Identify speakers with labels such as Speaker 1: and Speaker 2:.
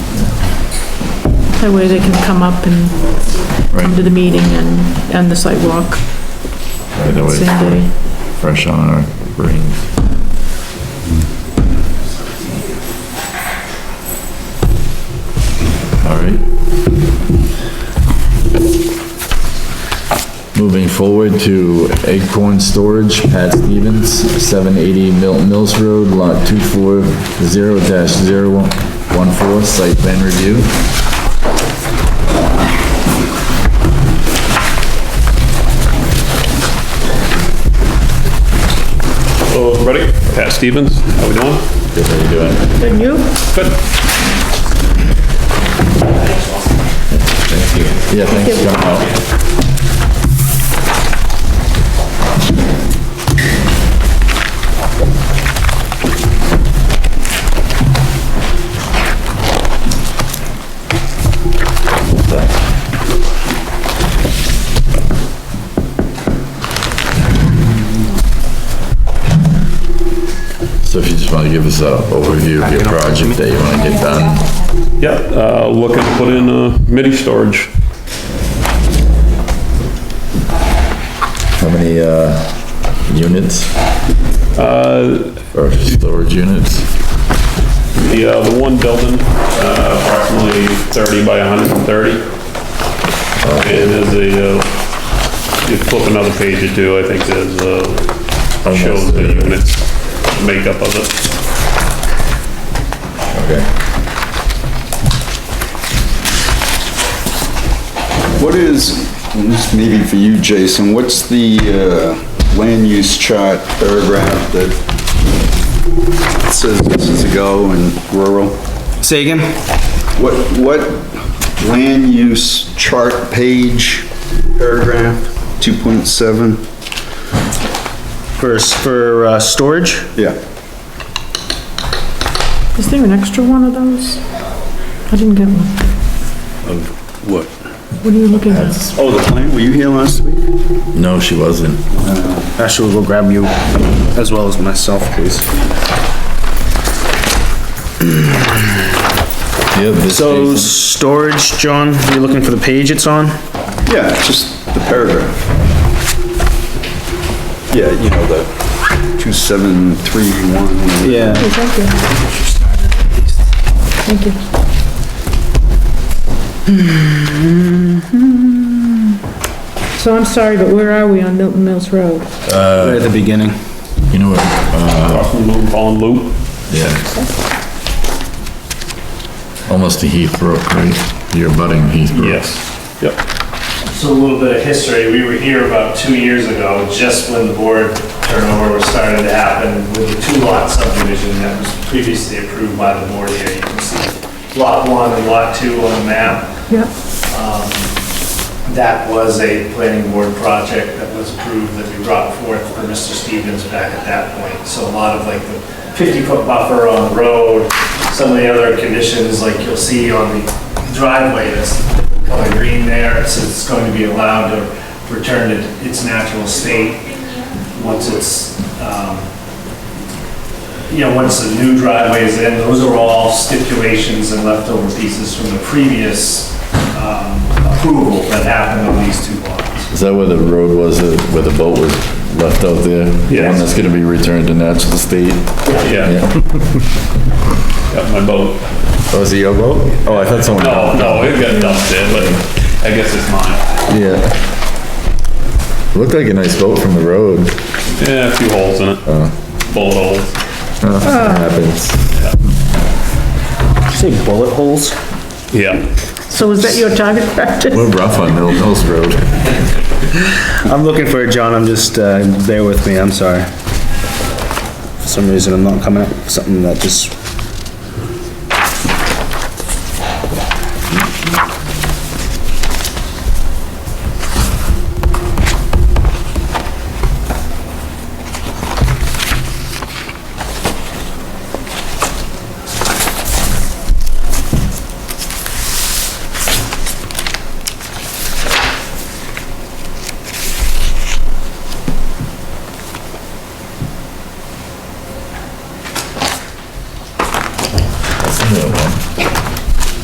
Speaker 1: That way they can come up and come to
Speaker 2: Right,
Speaker 1: the meeting and, and the sidewalk
Speaker 2: right
Speaker 1: same day.
Speaker 2: away, fresh on our brains. All right. Moving forward to Acorn Storage, Pat Stevens, 780 Milton Mills Road, Lot 240-014, Site Plan Review.
Speaker 3: Hello, everybody. Pat Stevens, how we doing?
Speaker 2: Good, how you doing?
Speaker 1: And you?
Speaker 3: Good.
Speaker 2: Thank you. Yeah, thanks for coming out. So if you just want to give us a overview of your project that you want to get done.
Speaker 3: Yeah, uh, looking to put in uh, mini storage,
Speaker 2: How many, uh, units
Speaker 3: Uh,
Speaker 2: or storage units?
Speaker 3: the, uh, the one building, uh, approximately 30 by 130. And there's a, uh, you flip another page or two, I think there's, uh, shows the unit makeup of it.
Speaker 2: Okay.
Speaker 4: What is, this may be for you, Jason, what's the uh, land use chart paragraph that says this is a go and rural?
Speaker 5: Say again?
Speaker 4: What, what land use chart page paragraph, 2.7?
Speaker 5: For, s- for, uh, storage?
Speaker 4: Yeah.
Speaker 1: Is there an extra one of those? I didn't get one.
Speaker 4: What?
Speaker 1: What are you looking at?
Speaker 4: Oh, the plan, were you here last week?
Speaker 2: No, she wasn't.
Speaker 5: Actually, we'll go grab you as well as myself, please.
Speaker 2: Yeah, this
Speaker 5: So,
Speaker 2: Jason-
Speaker 5: storage, John, you looking for the page it's on?
Speaker 4: Yeah, just the paragraph. Yeah, you know, the 2731.
Speaker 1: Okay, Oh, Thank you. Thank you. So I'm sorry, but where are we on Milton Mills Road?
Speaker 5: Right at the beginning.
Speaker 2: you know what, uh,
Speaker 3: Loop on loop.
Speaker 2: yeah. Almost to Heathbrook, right? You're butting Heathbrook.
Speaker 3: Yes, yep.
Speaker 6: So a little bit of history, we were here about two years ago, just when the board turnover was starting to happen with the two-lot subdivision that was previously approved by the board here. You can see Lot 1 and Lot 2 on the map.
Speaker 1: Yep.
Speaker 6: That was a planning board project that was approved that we brought forth for Mr. Stevens back at that point. So a lot of like the 50-foot buffer on the road, some of the other conditions, like you'll see on the driveway, that's color green there, so it's going to be allowed to return to its natural state once it's, um, you know, once the new driveway is in, those are all stipulations and leftover pieces from the previous um, approval that happened on these two lots.
Speaker 2: Is that where the road was, uh, where the boat was left out there? The one
Speaker 3: Yes.
Speaker 2: that's gonna be returned to natural state?
Speaker 3: Yeah,
Speaker 2: Yeah.
Speaker 3: got my boat.
Speaker 2: Oh, is it your boat? Oh, I thought someone.
Speaker 3: No, no, it got dumped there, but I guess it's mine.
Speaker 2: Yeah. Looked like a nice boat from the road.
Speaker 3: Yeah, a few holes in it. Bullet holes.
Speaker 2: Uh, Happens.
Speaker 5: Say bullet holes?
Speaker 3: Yeah.
Speaker 1: So is that your target practice?
Speaker 2: We're rough on Mill Mills Road.
Speaker 5: I'm looking for it, John, I'm just, uh, bear with me, I'm sorry. For some reason, I'm not coming up with something that just